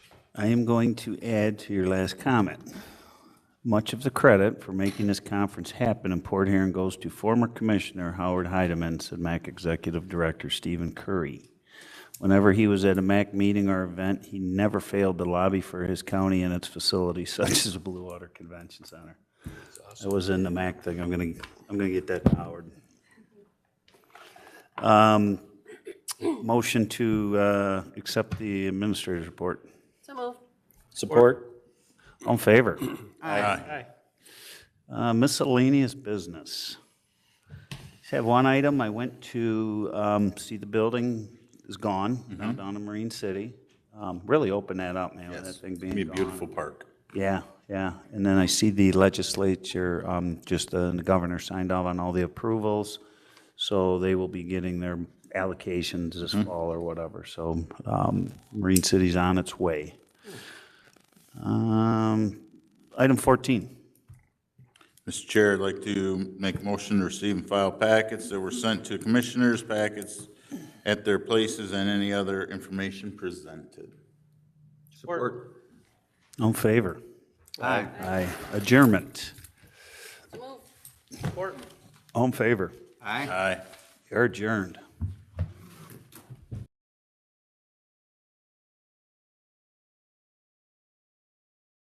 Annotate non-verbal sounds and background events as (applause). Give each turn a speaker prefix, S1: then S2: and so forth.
S1: I am going to add to your last comment. Much of the credit for making this conference happen in Port Huron goes to former Commissioner Howard Heidemann, said MAC Executive Director Stephen Curry. Whenever he was at a MAC meeting or event, he never failed to lobby for his county and its facilities (laughs) such as the Blue Water Convention Center. I was in the MAC thing, I'm gonna, I'm gonna get that to Howard. Um, Motion to uh, accept the administrator's report.
S2: So moved.
S3: Support?
S1: All in favor?
S3: (clears throat) Aye.
S1: Uh, Miscellaneous business. Just have one item. I went to um, see the building is gone now down in Marine City. Um, Really opened that up, man, with that thing being
S4: Be a
S1: gone.
S4: beautiful park.
S1: Yeah, yeah. And then I see the legislature, um, just uh, the governor signed off on all the approvals. So they will be getting their allocations this fall or whatever. So um, Marine City's on its way. Um, Item 14.
S4: Mr. Chair, I'd like to make a motion to receive and file packets that were sent to commissioners, packets at their places, and any other information presented.
S3: Support?
S1: All in favor?
S3: Aye.
S1: Aye. Adjournment.
S2: So moved.
S3: Support?
S1: All in favor?
S3: Aye.
S4: Aye.
S1: You're adjourned.